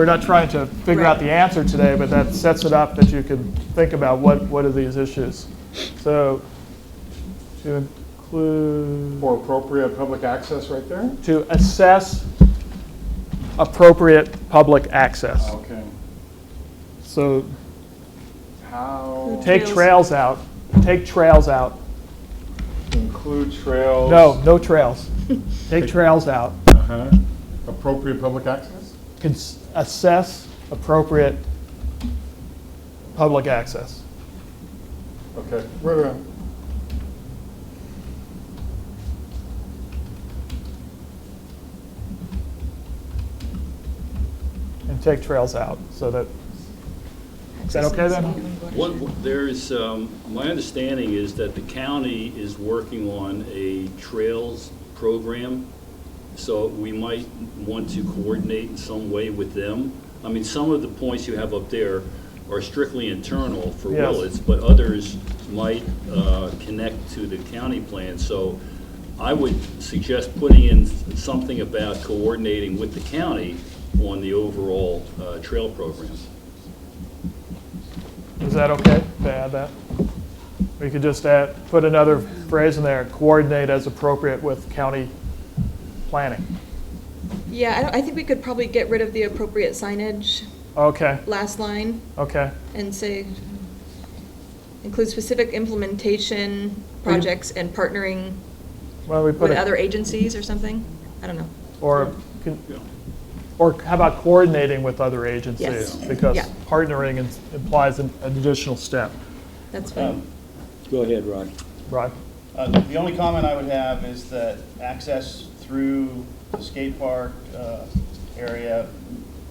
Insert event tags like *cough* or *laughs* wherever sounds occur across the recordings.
We're not trying to figure out the answer today, but that sets it up that you can think about what, what are these issues. So to include, For appropriate public access right there? to assess appropriate public access. Okay. So How, take trails out, take trails out. include trails? No, no trails. Take trails out. Uh-huh. Appropriate public access? Cons- Assess appropriate public access. Okay, right around. and take trails out, so that, is that okay then? What, what- there's, um, my understanding is that the county is working on a trails program, so we might want to coordinate in some way with them. I mean, some of the points you have up there are strictly internal for Yes. Willits, but others might uh, connect to the county plan. So I would suggest putting in something about coordinating with the county on the overall uh, trail program. Is that okay to add that? We could just add, put another phrase in there, coordinate as appropriate with county planning. Yeah, I don't- I think we could probably get rid of the appropriate signage Okay, last line okay. and say, include specific implementation projects and partnering Well, we put with other it, agencies or something? I don't know. or, can- or how about coordinating with other agencies? Yes. Because Yeah. partnering in- implies an an additional step, That's fine. Um, Go ahead, Ron. right? Uh, The only comment I would have is that access through the skate park uh, area,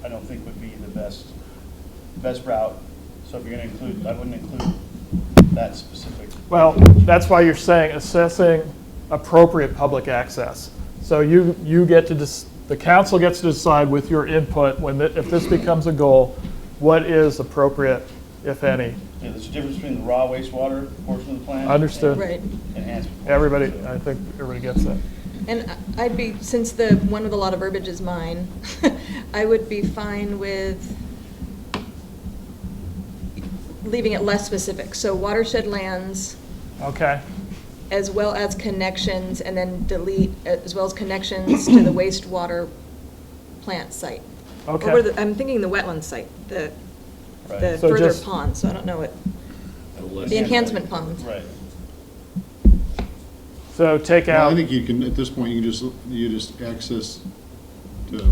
I don't think would be the best, best route. So if you're going to include, I wouldn't include that specific. Well, that's why you're saying assessing appropriate public access. So you, you get to, dec- the council gets to decide with your input, when, thi- if this becomes a goal, what is appropriate, if any? Yeah, there's a difference between the raw wastewater portion of the plan. Understood. Right. and Enhancement. Everybody, So- I think everybody gets that. And I- I'd be, since the one with a lot of verbiage is mine, *laughs* I would be fine with leaving it less specific. So watershed lands, Okay, as well as connections, and then delete, as well as connections to the wastewater plant site. Okay. Or the- I'm thinking the wetland site, the, Right. the So further just- pond, so I don't know what, the enhancement pond. Right. so take Well, I out, think you can, at this point, you can just, you just access the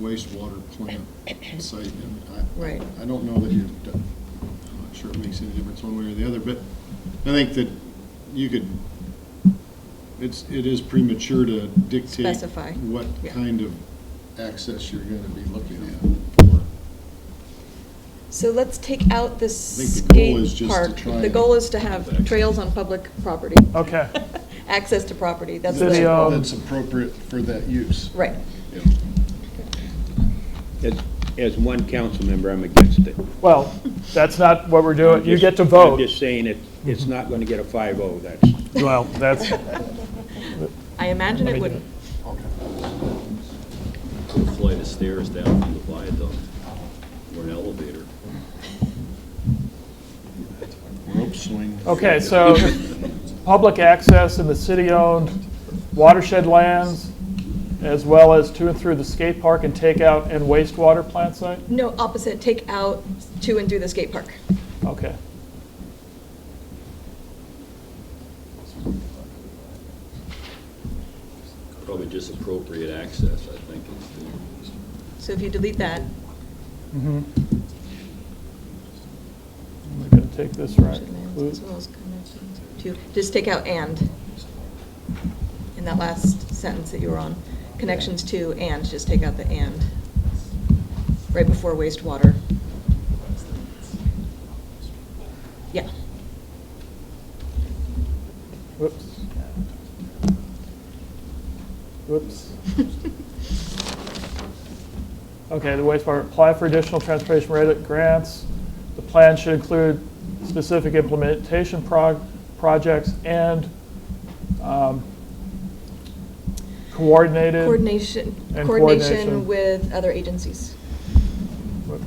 wastewater plant site. and I- Right. I don't know that you're, I'm not sure it makes any difference one way or the other, but I think that you could, it's, it is premature to dictate Specify. what Yeah. kind of access you're gonna be looking at. for. So let's take out the think the goal skate is just to park. try The and- goal is to have trails on public property, okay, *laughs* uh, access to property, that's City the, of- That's appropriate for that use. right. Yeah. As, as one council member, I'm against it. well, that's not what we're doing, you Just- get to I'm vote. Mm-hmm. just saying it, it's not going to get a 5-0, that's. Well, that's, I imagine it would, flight of stairs down from the viaduct or an elevator. Rope swing. okay, so, public access in the city-owned watershed lands, as well as to and through the skate park and take out and wastewater plant site? no, opposite, take out to and through the skate park. Okay. Probably just appropriate access, I think. is So if you delete that, I'm going to take this right. should lands as well as connections to, just take out and. In that last sentence that you were on, connections to and, just take out the and. Right before wastewater. Yeah, Whoops. Whoops. Okay, the wastewater, apply for additional transportation rate grants. The plan should include specific implementation prog, projects and um, coordinated. coordination, And coordination coordination. with other agencies. but